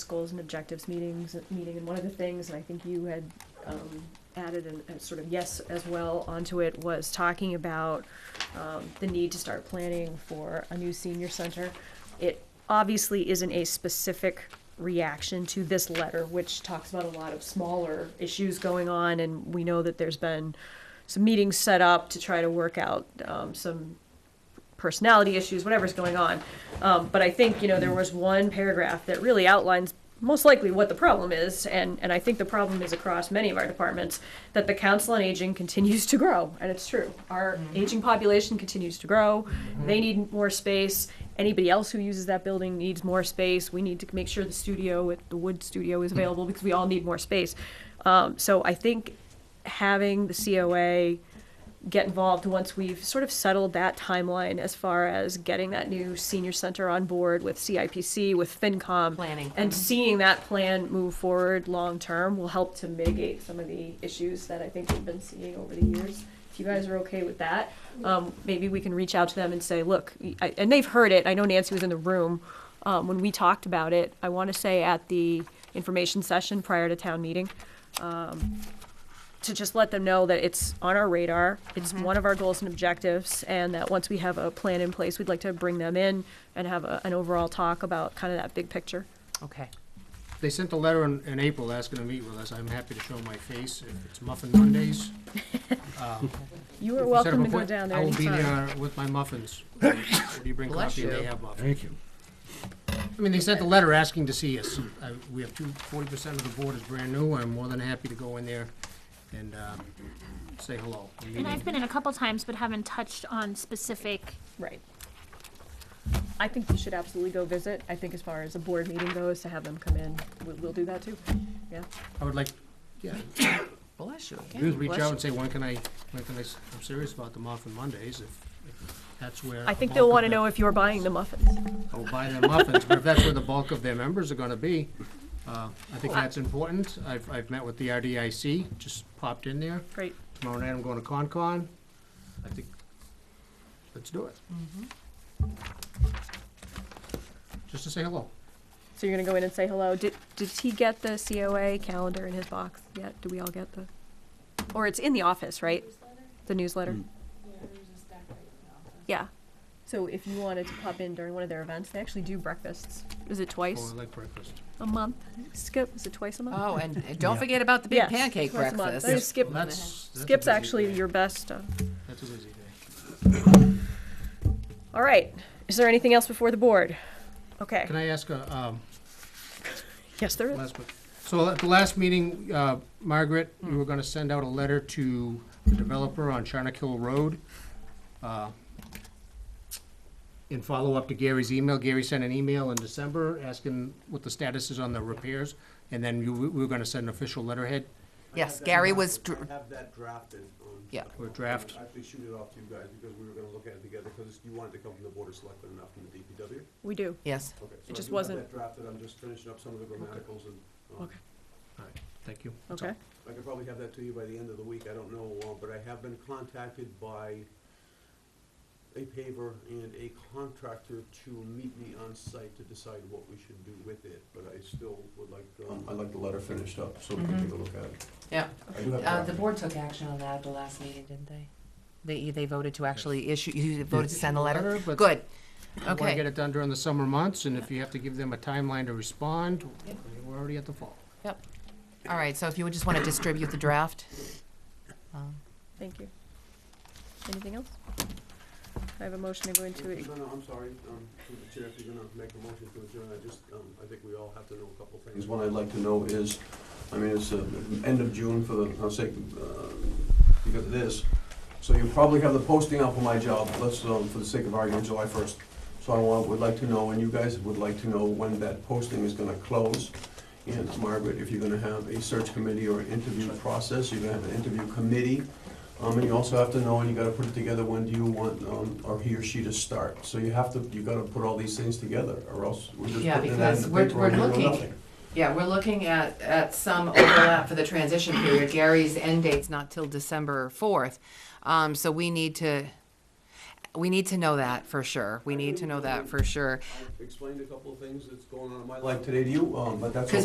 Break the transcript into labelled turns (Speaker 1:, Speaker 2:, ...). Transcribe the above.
Speaker 1: goals and objectives meetings, meeting, and one of the things, and I think you had um, added an- a sort of yes as well onto it, was talking about um, the need to start planning for a new senior center. It obviously isn't a specific reaction to this letter, which talks about a lot of smaller issues going on, and we know that there's been some meetings set up to try to work out um, some personality issues, whatever's going on. Um, but I think you know there was one paragraph that really outlines most likely what the problem is, and and I think the problem is across many of our departments that the council on aging continues to grow, and it's true. Our aging population continues to grow. They need more space. Anybody else who uses that building needs more space. We need to make sure the studio, at the wood studio, is available because we all need more space. Um, so I think having the COA get involved once we've sort of settled that timeline as far as getting that new senior center on board with CIPC, with FinCom.
Speaker 2: Planning.
Speaker 1: And seeing that plan move forward long term will help to mitigate some of the issues that I think we've been seeing over the years. If you guys are okay with that, um, maybe we can reach out to them and say, look, I, and they've heard it. I know Nancy was in the room um, when we talked about it. I want to say at the information session prior to town meeting to just let them know that it's on our radar, it's one of our goals and objectives, and that once we have a plan in place, we'd like to bring them in and have a, an overall talk about kind of that big picture.
Speaker 2: Okay.
Speaker 3: They sent a letter in, in April asking to meet with us. I'm happy to show my face if it's Muffin Mondays.
Speaker 1: You
Speaker 3: If
Speaker 1: are
Speaker 3: you set
Speaker 1: welcome
Speaker 3: up a
Speaker 1: to go
Speaker 3: point,
Speaker 1: down there
Speaker 3: I will be
Speaker 1: anytime.
Speaker 3: there with my muffins. If you bring
Speaker 2: Bless
Speaker 3: coffee, they
Speaker 2: you.
Speaker 3: have muffins.
Speaker 4: Thank you.
Speaker 3: I mean, they sent a letter asking to see us. I- We have two, forty percent of the board is brand new. I'm more than happy to go in there and, uh, say hello.
Speaker 5: And I've been in a couple times, but haven't touched on specific.
Speaker 1: Right. I think you should absolutely go visit. I think as far as a board meeting goes, to have them come in, we'll, we'll do that too. Yeah.
Speaker 3: I would like, yeah,
Speaker 2: Bless you.
Speaker 3: just reach out and say, when can I, when can I, s- I'm serious about the Muffin Mondays, if, if that's where.
Speaker 1: I
Speaker 3: a
Speaker 1: think
Speaker 3: bulk
Speaker 1: they'll
Speaker 3: of
Speaker 1: want to
Speaker 3: the-
Speaker 1: know if you're buying the muffins.
Speaker 3: I will buy them muffins, but if that's where the bulk of their members are gonna be, uh, I think that's important. I've, I've met with the RDIC, just popped in there.
Speaker 1: Great.
Speaker 3: Tomorrow night I'm going to Concon. I think, let's do it. Just to say hello.
Speaker 1: So you're gonna go in and say hello. Did, did he get the COA calendar in his box yet? Do we all get the? Or it's in the office, right? The newsletter? Yeah. So if you wanted to pop in during one of their events, they actually do breakfasts. Is Oh, it
Speaker 3: Oh,
Speaker 1: twice
Speaker 3: I like breakfast.
Speaker 1: a month? Skip, is it twice a month?
Speaker 3: Uh,
Speaker 2: Oh, and and don't forget about the big
Speaker 1: Yes,
Speaker 2: pancake
Speaker 1: twice a month.
Speaker 2: breakfast.
Speaker 1: That is Skip,
Speaker 3: Well, that's- that's a
Speaker 1: Skip's
Speaker 3: busy
Speaker 1: actually
Speaker 3: day.
Speaker 1: your best. uh,
Speaker 3: That's a busy day.
Speaker 1: All right. Is there anything else before the board? Okay.
Speaker 3: Can I ask a, um,
Speaker 1: Yes, there is.
Speaker 3: Last one. So at the last meeting, uh, Margaret, you were gonna send out a letter to the developer on Charnock Hill Road. uh, In follow-up to Gary's email, Gary sent an email in December asking what the status is on the repairs, and then you, we were gonna send an official letterhead
Speaker 2: Yes, Gary was, dr-
Speaker 6: I have that drafted. um,
Speaker 2: yeah,
Speaker 3: or draft.
Speaker 6: I think shoot it off to you guys because we were gonna look at it together because you wanted to come from the board of selectmen and not from the DPW.
Speaker 1: We do.
Speaker 2: yes.
Speaker 6: Okay, so
Speaker 1: It
Speaker 6: I
Speaker 1: just
Speaker 6: do have
Speaker 1: wasn't-
Speaker 6: that Drafted, I'm just finishing up some of the grammaticals and, um,
Speaker 1: Okay.
Speaker 3: All right, thank you. That's all.
Speaker 1: Okay.
Speaker 6: I could probably have that to you by the end of the week, I don't know, uh, but I have been contacted by a paver and a contractor to meet me on site to decide what we should do with it, but I still would like, um, I'd like the letter finished up so we can take a look at it.
Speaker 2: Yeah.
Speaker 6: I do have
Speaker 2: Mm-hmm. Uh, the
Speaker 6: copies.
Speaker 2: board took action on that at the last meeting, didn't they? They, they voted to actually issue, you voted to send the letter?
Speaker 3: Letter, but-
Speaker 2: Good.
Speaker 3: I wanna
Speaker 2: Okay.
Speaker 3: get it done during the summer months, and if you have to give them a timeline to respond, we're already at the fall.
Speaker 2: Yep. All right, so if you would just want to distribute the draft. Um,
Speaker 1: Thank you. Anything else? I have a motion to go into it.
Speaker 6: No, no, I'm sorry, um, through the chair, if you're gonna make a motion to adjourn, I just, um, I think we all have to know a couple things. One I'd like to know is, I mean, it's, uh, end of June for the, I'll say, uh, because of this. So you probably have the posting out for my job, let's, um, for the sake of argument, July first. So I want, would like to know, and you guys would like to know when that posting is gonna close. And Margaret, if you're gonna have a search committee or an interview process, you're gonna have an interview committee. Um, and you also have to know, and you gotta put it together, when do you want, um, or he or she to start? So you have to, you gotta put all these things together, or else we're just
Speaker 2: Yeah,
Speaker 6: putting that in
Speaker 2: because
Speaker 6: the
Speaker 2: we're-
Speaker 6: paper
Speaker 2: we're
Speaker 6: and we know
Speaker 2: looking.
Speaker 6: nothing.
Speaker 2: Yeah, we're looking at, at some overlap for the transition period. Gary's end date's not till December fourth. Um, so we need to, we need to know that for sure. We need to know that for sure.
Speaker 6: I've explained a couple of things that's going on in my life today to you, um, but that's